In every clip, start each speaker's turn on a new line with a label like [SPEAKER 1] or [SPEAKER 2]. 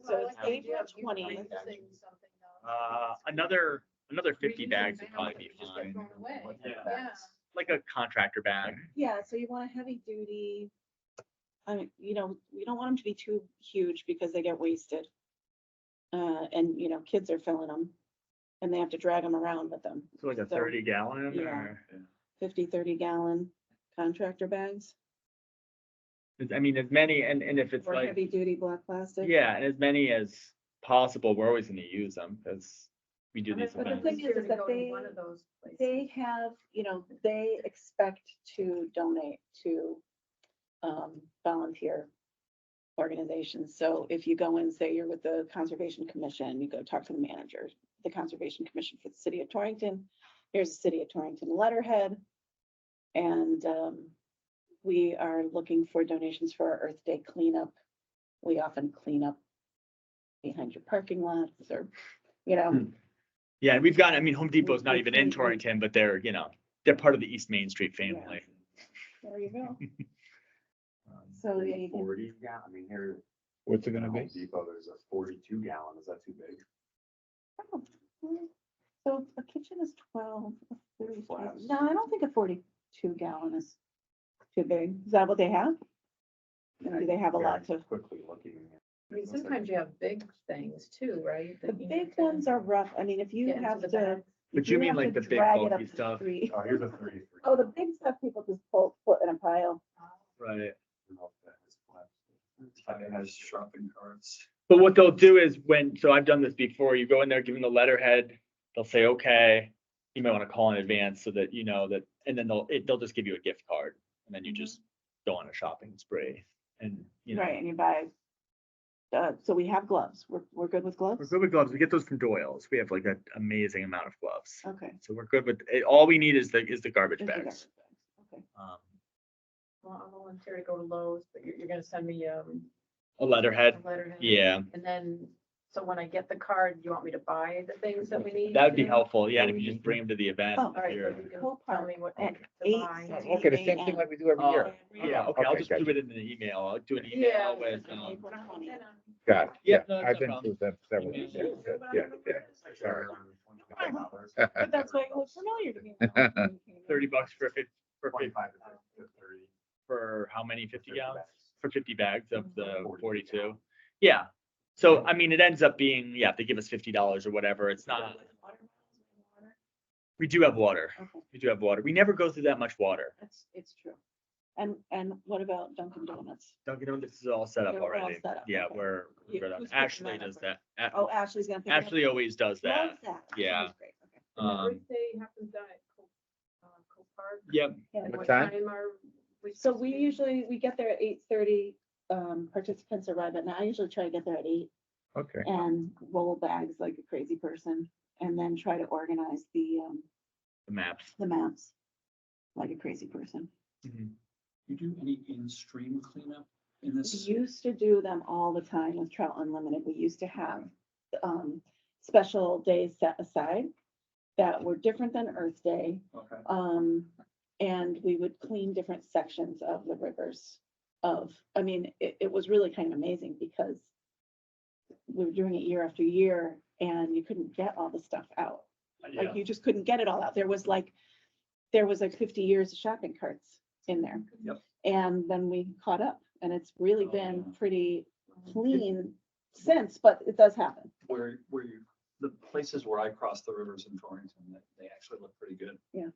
[SPEAKER 1] was April 20th.
[SPEAKER 2] Uh, another, another fifty bags would probably be fine,
[SPEAKER 3] Yeah.
[SPEAKER 2] like a contractor bag.
[SPEAKER 1] Yeah, so you want a heavy duty. I mean, you know, we don't want them to be too huge because they get wasted. Uh, and you know, kids are filling them and they have to drag them around with them.
[SPEAKER 2] So like a
[SPEAKER 1] So-
[SPEAKER 2] thirty gallon
[SPEAKER 1] Yeah.
[SPEAKER 2] or,
[SPEAKER 1] 50, 30 gallon contractor bags
[SPEAKER 2] I mean, as many, and, and if it's
[SPEAKER 1] or
[SPEAKER 2] like,
[SPEAKER 1] heavy duty black plastic.
[SPEAKER 2] yeah, and as many as possible, we're always gonna use them, cause we do these
[SPEAKER 1] but the
[SPEAKER 2] events.
[SPEAKER 1] thing is, is that they- They have, you know, they expect to donate to um, volunteer organizations. So if you go and say you're with the Conservation Commission, you go talk to the manager, the Conservation Commission for the city of Torrington. Here's the city of Torrington letterhead. And um, we are looking for donations for our Earth Day cleanup. We often clean up behind your parking lots or, you know,
[SPEAKER 2] Yeah, and we've got, I mean, Home Depot's not
[SPEAKER 1] we
[SPEAKER 2] even in
[SPEAKER 1] can't- we-
[SPEAKER 2] Torrington, but they're, you know, they're part of the East Main Street family.
[SPEAKER 1] there you go.
[SPEAKER 4] Um,
[SPEAKER 1] So
[SPEAKER 4] maybe
[SPEAKER 1] yeah, you can-
[SPEAKER 4] Forty, yeah, I mean, here.
[SPEAKER 5] What's it
[SPEAKER 4] at
[SPEAKER 5] gonna
[SPEAKER 4] Home
[SPEAKER 5] be?
[SPEAKER 4] Depot, there's a forty-two gallon, is that too big?
[SPEAKER 1] Oh, well, So a kitchen is twelve. a food is twelve.
[SPEAKER 4] Flask.
[SPEAKER 1] No, I don't think a forty-two gallon is too big. Is that what they have? And do they have a lot
[SPEAKER 4] Very
[SPEAKER 1] to-
[SPEAKER 4] Quickly looking.
[SPEAKER 3] I mean, sometimes you have big things too, right?
[SPEAKER 1] The big ones are rough. I mean, if you have to.
[SPEAKER 2] But
[SPEAKER 1] if
[SPEAKER 2] you mean
[SPEAKER 1] have
[SPEAKER 2] like
[SPEAKER 1] to
[SPEAKER 2] the big
[SPEAKER 1] drag it
[SPEAKER 2] bulky
[SPEAKER 1] up the
[SPEAKER 2] stuff,
[SPEAKER 1] street-
[SPEAKER 4] Oh, here's a thirty-three.
[SPEAKER 1] Oh, the big stuff people just pull, put in a pile.
[SPEAKER 2] right?
[SPEAKER 4] I don't know if that is flat. It has shopping carts.
[SPEAKER 2] But what they'll do is when, so I've done this before, you go in there, give them the letterhead, they'll say, okay. You might want to call in advance so that you know that, and then they'll, it, they'll just give you a gift card and then you just go on a shopping spree and, you know.
[SPEAKER 1] Right, and you buy. Uh, so we have gloves. We're, we're good with
[SPEAKER 2] We're
[SPEAKER 1] gloves?
[SPEAKER 2] good with gloves. We get those from Doyle's. We have like an amazing amount of gloves.
[SPEAKER 1] Okay.
[SPEAKER 2] So we're good with, it. all we need is the, is the garbage
[SPEAKER 1] Just the
[SPEAKER 2] bags.
[SPEAKER 1] garbage bags. Okay.
[SPEAKER 2] Um,
[SPEAKER 3] Well, I'm volunteer to go to Lowe's, but you're, you're gonna send me, um,
[SPEAKER 2] A
[SPEAKER 3] a
[SPEAKER 2] letterhead,
[SPEAKER 3] letterhead.
[SPEAKER 2] yeah,
[SPEAKER 3] And then, so when I get the card, you want me to buy the things that we need?
[SPEAKER 2] that would be
[SPEAKER 3] you know?
[SPEAKER 2] helpful. Yeah, and if you just bring them to the event.
[SPEAKER 1] Oh.
[SPEAKER 3] All right, so
[SPEAKER 2] you're-
[SPEAKER 3] you can tell me what
[SPEAKER 1] At
[SPEAKER 3] to
[SPEAKER 1] eight
[SPEAKER 3] buy.
[SPEAKER 1] sixty.
[SPEAKER 5] Okay, the same thing like we do every
[SPEAKER 2] Oh,
[SPEAKER 5] year.
[SPEAKER 2] Yeah, okay, I'll
[SPEAKER 5] Okay,
[SPEAKER 2] just
[SPEAKER 5] gotcha.
[SPEAKER 2] do it in an email. I'll do an
[SPEAKER 3] Yeah.
[SPEAKER 2] email with, um,
[SPEAKER 1] April 20th.
[SPEAKER 5] Got it.
[SPEAKER 2] Yeah, no, that's
[SPEAKER 5] I've
[SPEAKER 2] no
[SPEAKER 5] been
[SPEAKER 2] problem.
[SPEAKER 5] through that several
[SPEAKER 2] Yeah.
[SPEAKER 5] times. Yeah, yeah. Sorry.
[SPEAKER 1] Uh-huh. But that's why it looked familiar to me. now when you came in.
[SPEAKER 2] thirty bucks for fif- for fif-
[SPEAKER 4] Twenty-five to thirty.
[SPEAKER 2] for how many fifty
[SPEAKER 4] 30
[SPEAKER 2] gallons?
[SPEAKER 4] bags.
[SPEAKER 2] For fifty bags of the
[SPEAKER 4] 40
[SPEAKER 2] forty-two.
[SPEAKER 4] gallons.
[SPEAKER 2] Yeah, so I mean, it ends up being, yeah, if they give us fifty dollars or whatever, it's not, we do have water.
[SPEAKER 1] Okay.
[SPEAKER 2] We do have water. We never go through that much water.
[SPEAKER 1] That's, it's true. And, and what about Dunkin' Donuts?
[SPEAKER 2] Dunkin' Donuts is all set up
[SPEAKER 1] They're all
[SPEAKER 2] already.
[SPEAKER 1] set up,
[SPEAKER 2] Yeah,
[SPEAKER 1] okay.
[SPEAKER 2] we're, we're
[SPEAKER 1] Yeah,
[SPEAKER 2] good on-
[SPEAKER 1] who's picking
[SPEAKER 2] Ashley
[SPEAKER 1] that up
[SPEAKER 2] does
[SPEAKER 1] right
[SPEAKER 2] that. A-
[SPEAKER 1] Oh, Ashley going to.
[SPEAKER 2] Ashley always does that. Yeah. Um,
[SPEAKER 3] Thursday happens down at Co- uh, Co Park.
[SPEAKER 2] yep,
[SPEAKER 1] Yeah.
[SPEAKER 5] What time?
[SPEAKER 3] are we
[SPEAKER 1] So
[SPEAKER 3] supposed
[SPEAKER 1] we
[SPEAKER 3] to-
[SPEAKER 1] usually, we get there at eight thirty, um, participants arrive, and I usually try to get there at eight
[SPEAKER 5] Okay.
[SPEAKER 1] and roll bags like a crazy person. And then try to organize the, um,
[SPEAKER 2] the maps.
[SPEAKER 1] the maps like a crazy person.
[SPEAKER 6] You do any in-stream cleanup in
[SPEAKER 1] We
[SPEAKER 6] this?
[SPEAKER 1] used to do them all the time with Trout Unlimited. We used to have um special days set aside that were different than Earth Day.
[SPEAKER 6] Okay.
[SPEAKER 1] Um, and we would clean different sections of the rivers of, I mean, it, it was really kind of amazing because we were doing it year after year and you couldn't get all the stuff out. Like you just couldn't get it all out. There was like, there was like fifty years of shopping carts in there.
[SPEAKER 6] Yep.
[SPEAKER 1] And then we caught up and it's really
[SPEAKER 6] Oh,
[SPEAKER 1] been
[SPEAKER 6] yeah.
[SPEAKER 1] pretty clean since, but it does happen.
[SPEAKER 6] Where, where you, the places where I cross the rivers in Torrington, they, they actually look pretty good.
[SPEAKER 1] Yeah.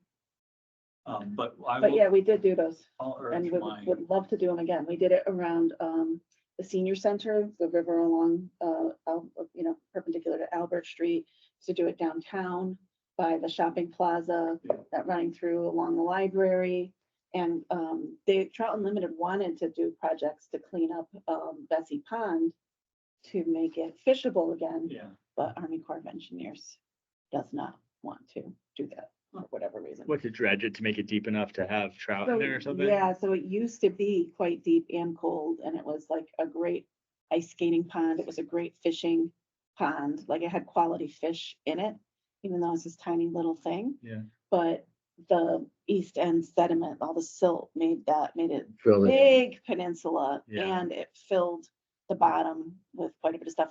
[SPEAKER 6] Um, but I
[SPEAKER 1] But yeah,
[SPEAKER 6] will,
[SPEAKER 1] we did do those
[SPEAKER 6] I'll
[SPEAKER 1] and
[SPEAKER 6] urge
[SPEAKER 1] would,
[SPEAKER 6] my,
[SPEAKER 1] would love to do them again. We did it around, um, the senior center, the river along, uh, Al- you know, perpendicular to Albert Street. To do it downtown by the shopping plaza,
[SPEAKER 6] Yeah.
[SPEAKER 1] that running through along the library. And, um, they, Trout Unlimited wanted to do projects to clean up, um, Bessie Pond to make it fishable again,
[SPEAKER 6] yeah,
[SPEAKER 1] but Army Corps of Engineers does not want to do that for whatever reason.
[SPEAKER 2] What to dredge it to make it deep enough to have trout in
[SPEAKER 1] So,
[SPEAKER 2] there or something?
[SPEAKER 1] Yeah, so it used to be quite deep and cold, and it was like a great ice skating pond. It was a great fishing pond. Like it had quality fish in it, even though it's this tiny little thing.
[SPEAKER 2] Yeah.
[SPEAKER 1] But the east end sediment, all the silt made that, made it
[SPEAKER 5] Fill it in.
[SPEAKER 1] big peninsula,
[SPEAKER 2] Yeah.
[SPEAKER 1] and it filled the bottom with quite a bit of stuff.